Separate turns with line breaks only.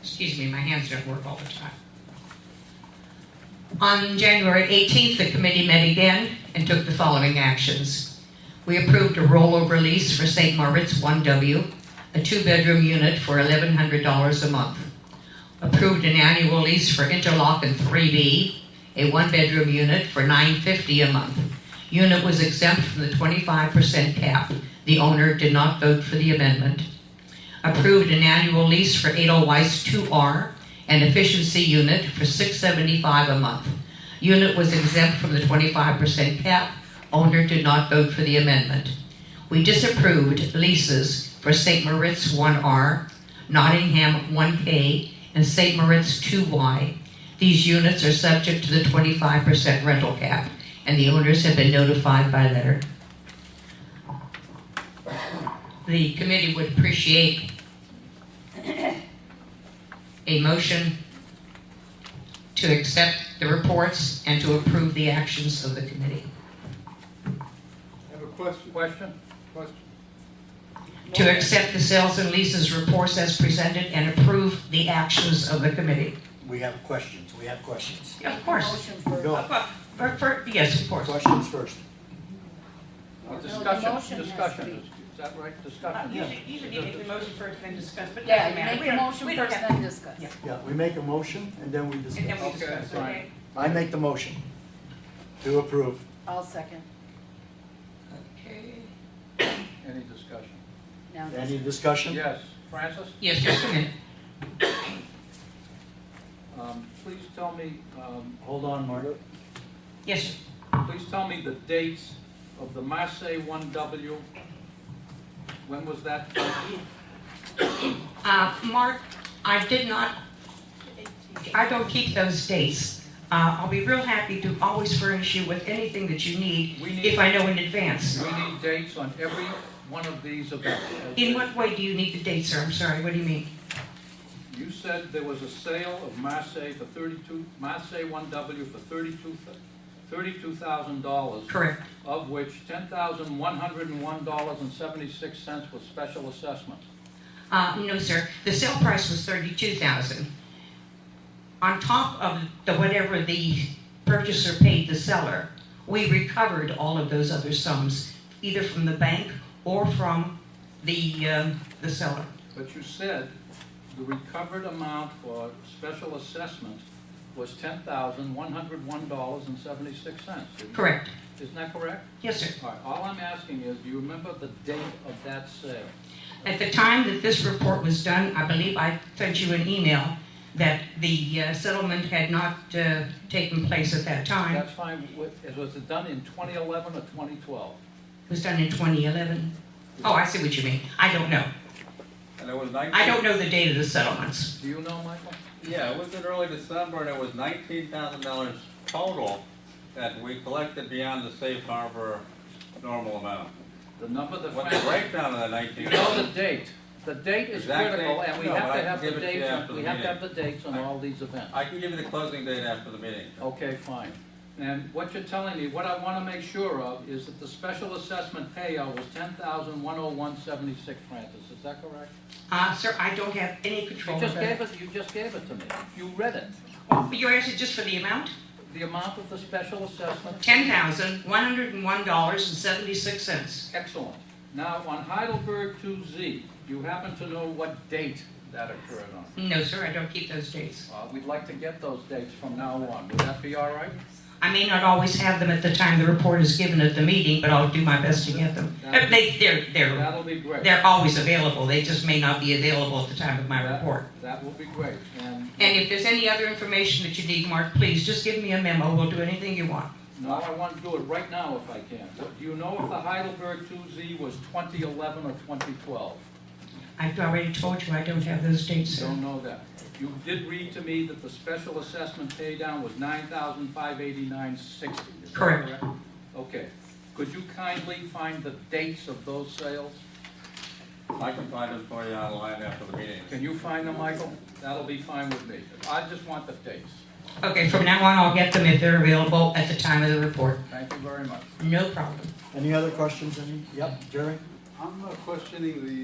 excuse me, my hands don't work all the time. On January 18th, the committee met again and took the following actions. We approved a rollover lease for St. Moritz 1W, a two-bedroom unit for $1,100 a month. Approved an annual lease for Interlock and 3B, a one-bedroom unit for $950 a month. Unit was exempt from the 25% cap. The owner did not vote for the amendment. Approved an annual lease for Edelweiss 2R, an efficiency unit for $675 a month. Unit was exempt from the 25% cap. Owner did not vote for the amendment. We disapproved leases for St. Moritz 1R, Nottingham 1K, and St. Moritz 2Y. These units are subject to the 25% rental cap, and the owners have been notified by letter. The committee would appreciate a motion to accept the reports and to approve the actions of the committee.
Have a question? Question? Question.
To accept the sales and leases reports as presented and approve the actions of the committee.
We have questions, we have questions.
Of course.
Motion for,
Go,
Well, for- for- Yes, of course.
questions first.
Uh,
the
Discussion,
motion has
discussion,
to be-
is is that right?
Uh,
Discussion.
You should- you should make the motion first, then discuss, but it
yeah,
doesn't
you
matter.
make
We
the
don't-
motion
we don't
first,
have-
then discuss.
Yeah.
Yeah, we make a motion and then we
And then we
discuss.
Okay,
discuss,
fine.
okay?
I make the motion to approve.
I'll second.
Okay.
Any discussion?
Now,
Any discussion?
Yes, Francis,
Yes, just a minute.
um, please tell me, um,
Hold on, Mark.
Yes, sir.
please tell me the dates of the Marseille 1W. When was that?
Uh, Mark, I did not, I don't keep those dates. Uh, I'll be real happy to always furnish you with anything that you need
We
if
need,
I know in advance.
we need dates on every one of these events.
In what way do you need the dates, sir? I'm sorry, what do you mean?
You said there was a sale of Marseille for 32, Marseille 1W for 32 $32,000.
Correct.
of which ten thousand one hundred and one dollars and seventy-six cents was special assessment.
Uh, no, sir, the sale price was thirty-two thousand. On top of the, whatever the purchaser paid the seller, we recovered all of those other sums, either from the bank or from the, um, the seller.
But you said the recovered amount for special assessment was ten thousand one hundred one dollars and seventy-six cents.
Correct.
Isn't that correct?
Yes, sir.
All right, all I'm asking is, do you remember the date of that sale?
At the time that this report was done, I believe I sent you an email that the uh, settlement had not uh, taken place at that time.
That's fine, wa- it was it done in twenty eleven or twenty twelve?
It was done in 2011. Oh, I see what you mean. I don't know.
And it was nineteen.
I don't know the date of the settlements.
Do you know, Michael?
Yeah, it was in early December, and it was nineteen thousand dollars total that we collected beyond the safe harbor normal amount.
The number that
What the
Frank,
breakdown of the
do
nineteen?
you know the date? The date is
Exact date?
critical, and we
No,
have
but I
to
can
have the
give it to you
dates,
after
on-
the
we have to
meeting.
have the dates on
I-
all these events.
I can give you the closing date after the meeting.
Okay, fine. And what you're telling me, what I want to make sure of is that the special assessment payout was ten thousand one oh one seventy-six, Francis, is that correct?
Uh, Sir, I don't have any control
You
over
just
that.
gave it, you just gave it to me. You read it.
Oh, You're asking just for the amount?
The amount of the special assessment.
$10,101.76.
Excellent. Now, on Heidelberg two Z, you happen to know what date that occurred on?
No, sir, I don't keep those dates.
Uh, we'd like to get those dates from now on. Would that be all right?
I may not always have them at the time the report is given at the meeting, but I'll do my best to get them.
That-
They- They're, they're
That'll be great.
They're always available, they just may not be available at the time of my
That-
report.
That will be great, and.
And if there's any other information that you need, Mark, please, just give me a memo, we'll do anything you want.
No, I want to do it right now if I can. What- Do you know if the Heidelberg 2Z was 2011 or 2012?
I've already told you I don't have those dates, sir.
Don't know that. You did read to me that the special assessment paydown was 9589 is that
Correct.
correct? Okay. Could you kindly find the dates of those sales?
I can find it for you online after the meeting.
Can you find them, Michael? That'll be fine with me. I just want the dates.
Okay, from now on, I'll get them if they're available at the time of the report.
Thank you very much.
No problem.
Any other questions, any? Yep, Jerry?
I'm not questioning the